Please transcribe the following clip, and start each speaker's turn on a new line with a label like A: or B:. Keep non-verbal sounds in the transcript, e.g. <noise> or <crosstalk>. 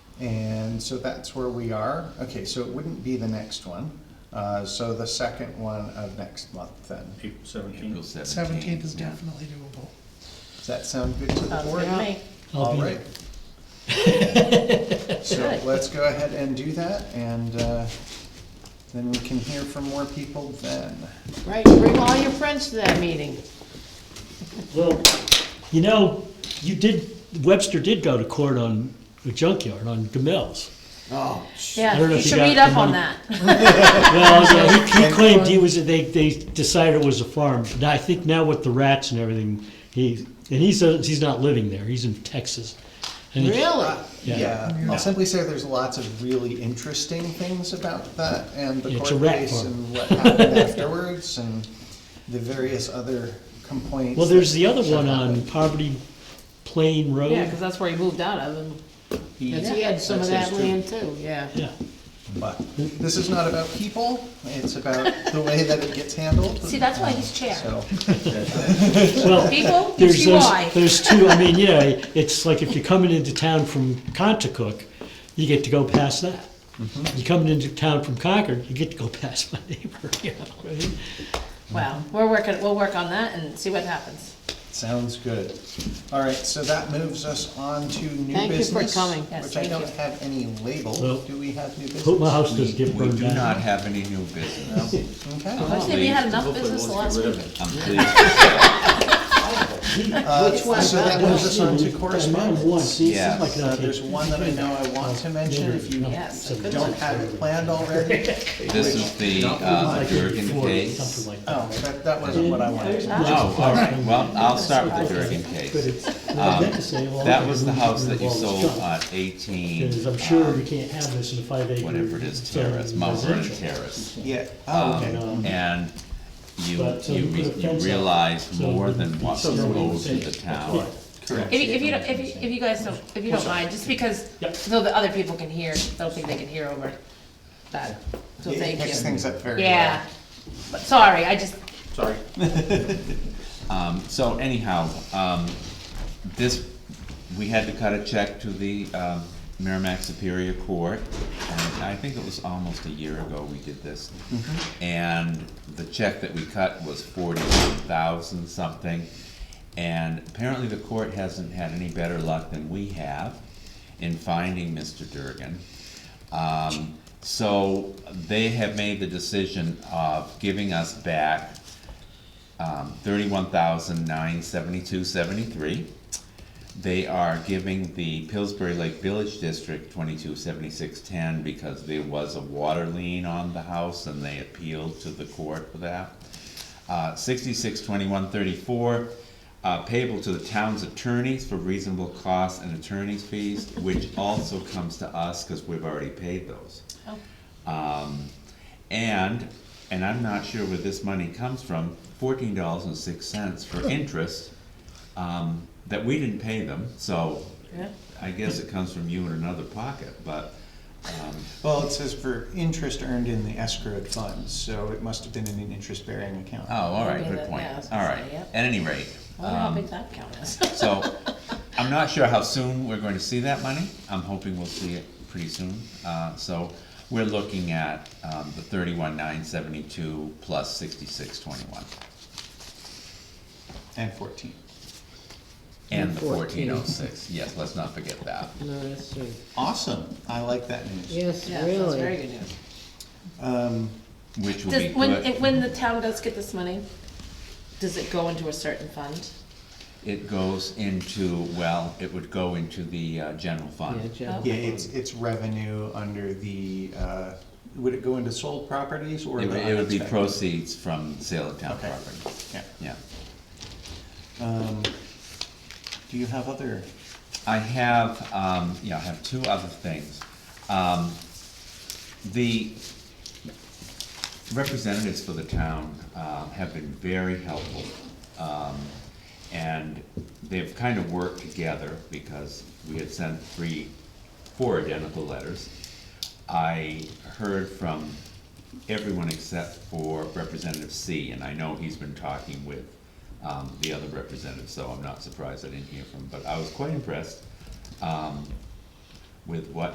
A: And so that's where we are. Okay, so it wouldn't be the next one. Uh, So the second one of next month then.
B: April
C: April
B: seventeenth.
C: seventeenth.
D: Seventeenth is definitely doable.
A: Does that sound good to the
E: Sounds
A: board?
E: good to me.
A: All right.
D: <laughs>
A: So
E: Good.
A: let's go ahead and do that and uh, then we can hear from more people then.
E: Right, bring all your friends to that meeting.
F: Well, you know, you did, Webster did go to court on a junkyard, on Gamels. I
E: Yeah,
F: don't know
E: you
F: if you
E: should
F: got
E: read up
F: the
E: on
F: money.
E: that.
F: Well, yeah, he, he claimed he was, they, they decided it was a farm. Now, I think now with the rats and everything, he, and he says he's not living there, he's in Texas. And he-
E: Really?
F: Yeah.
A: Yeah, I'll simply say there's lots of really interesting things about that and the
F: It's a
A: court
F: rat
A: case
F: farm.
A: and what happened afterwards and the various other complaints.
F: Well, there's
A: that
F: the other
A: should
F: one on
A: happen.
F: Poverty Plain Road.
E: Yeah, because that's where he moved out of, and that's- he had some of
A: That's
E: that
A: his too.
E: land too, yeah.
F: Yeah.
A: But this is not about people, it's about the way that it gets handled.
E: See, that's why he's chair.
A: So,
F: Well, <laughs>
E: People, you
F: There's
E: see
F: those,
E: why.
F: there's two, I mean, you know, it's like if you're coming into town from Contacook, you get to go past that.
C: Mm-hmm.
F: You coming into town from Concord, you get to go past my neighbor, <laughs> you know, right?
E: Well, we're working, we'll work on that and see what happens.
A: sounds good. All right, so that moves us on to new
E: Thank you for
A: business.
E: coming. Yes,
A: Which I
E: thank
A: don't
E: you.
A: have any label.
F: No.
A: Do we have new business?
F: Hope my house
C: We
F: doesn't get
C: we
F: burned
C: do not
F: down.
C: have any new business.
A: Okay.
E: I say we had enough business the last week.
C: I'm pleased,
A: Uh, So that moves us on to
F: Mine won.
A: correspondence.
F: See, it's
C: Yeah.
F: like
A: Uh,
F: a-
A: there's one that I know I want to mention if you
E: Yes, a good
A: don't
E: one.
A: have it planned already. <laughs>
C: this is the, uh,
F: Like a
C: Durgan
F: four,
C: case.
F: Something like that.
A: Oh, that, that wasn't what I wanted.
C: Oh, all right, well, I'll start with the Durgan
F: But
C: case.
F: it's, I meant to say, well.
C: That was the house that you
F: it's
C: sold
F: junk.
C: on eighteen,
F: Because I'm sure we
C: um,
F: can't have this in a five acre.
C: whatever it is,
F: zone
C: terrace, Mount Vernon
F: residential.
C: Terrace.
A: Yeah, oh,
C: Um,
A: okay.
F: okay.
C: And you,
F: But, so
C: you
F: you
C: re-
F: put a
C: you
F: fence up,
C: realize
F: so
C: more
F: it
C: than
F: wouldn't-
C: what's
F: so it wouldn't
C: owed to
F: say-
C: the town.
E: If you, if you, don't- if you, if you guys don't, if you don't mind, just because,
F: Yep.
E: so that other people can hear, I don't think they can hear over that, so
A: It
E: thank you.
A: picks things up very well.
E: Yeah, but sorry, I just,
B: Sorry.
C: Um, so anyhow, um, this, we had to cut a check to the, um, Merrimack Superior Court, and I think it was almost a year ago we did this. And the check that we cut was forty-one thousand something, and apparently the court hasn't had any better luck than we have in finding Mr. Durgan. Um, so they have made the decision of giving us back um, thirty-one thousand nine seventy-two seventy-three. They are giving the Pillsbury Lake Village District twenty-two seventy-six ten because there was a water lien on the house and they appealed to the court for that. Uh, sixty-six twenty-one thirty-four, uh, payable to the town's attorneys for reasonable costs and attorney's fees, which also comes to us, cause we've already paid those. Um, and, and I'm not sure where this money comes from, fourteen dollars and six cents for interest, um, that we didn't pay them, so
E: yeah,
C: I guess it comes from you in another pocket, but, um,
A: Well, it says for interest earned in the escrowed funds, so it must have been in an interest-bearing account.
C: oh, all right,
E: Yeah,
C: good point,
E: I was
C: all
E: gonna
C: right.
E: say, yep.
C: At any rate,
E: I wonder how
C: um,
E: big that count is.
C: <laughs>
E: <laughs>
C: So, I'm not sure how soon we're going to see that money. I'm hoping we'll see it pretty soon. Uh, so, we're looking at, um, the thirty-one nine seventy-two plus sixty-six twenty-one
A: And fourteen.
C: and the fourteen oh six. Yes, let's not forget that.
G: No, that's true.
A: Awesome, I like that news.
G: Yes,
E: Yeah, that's very
G: really.
E: good news.
A: Um,
C: Which will be
E: Does, when,
C: good.
E: when the town does get this money, does it go into a certain fund?
C: It goes into, well, it would go into the, uh, general
G: Yeah,
C: fund.
G: Joe.
A: yeah, it's, it's revenue under the, uh, would it go into sold properties or
C: It
A: the
C: would, it would be
A: uninspected?
C: proceeds from sale of town
A: Okay.
C: property.
A: Yeah.
C: Yeah.
A: Um, do you have other?
C: I have, um, yeah, I have two other things. Um, the representatives for the town, um, have been very helpful. Um, and they've kind of worked together because we had sent three, four identical letters. I heard from everyone except for Representative C, and I know he's been talking with, um, the other representatives, so I'm not surprised I didn't hear from him, but I was quite impressed, um, with what